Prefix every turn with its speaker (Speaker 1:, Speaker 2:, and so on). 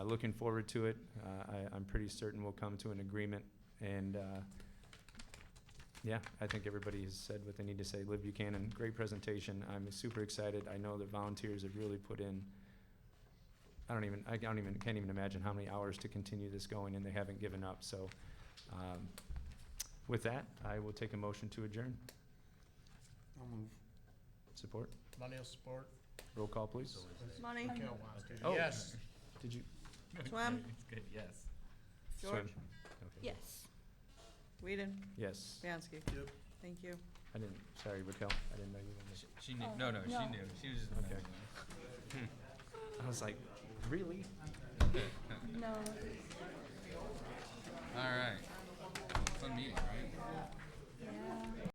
Speaker 1: looking forward to it. Uh, I, I'm pretty certain we'll come to an agreement and, uh, yeah, I think everybody has said what they need to say. Liv Buchanan, great presentation. I'm super excited. I know the volunteers have really put in, I don't even, I don't even, can't even imagine how many hours to continue this going and they haven't given up, so, um, with that, I will take a motion to adjourn.
Speaker 2: I'll move.
Speaker 1: Support?
Speaker 2: Money will support.
Speaker 1: Roll call, please.
Speaker 3: Money,
Speaker 2: Cal wants to.
Speaker 1: Oh.
Speaker 2: Yes.
Speaker 1: Did you?
Speaker 3: Swam,
Speaker 4: Good, yes.
Speaker 3: George,
Speaker 1: Swim. Okay.
Speaker 3: yes. Whedon,
Speaker 1: Yes.
Speaker 3: Bianski,
Speaker 2: Yep.
Speaker 3: thank you.
Speaker 1: I didn't, sorry, Raquel, I didn't know you were
Speaker 4: She- She knew, no, no, she
Speaker 5: no.
Speaker 4: knew. She was just.
Speaker 1: Okay.
Speaker 4: messing with us.
Speaker 1: there. I was like, really?
Speaker 5: No.
Speaker 4: All right. Fun meeting, right?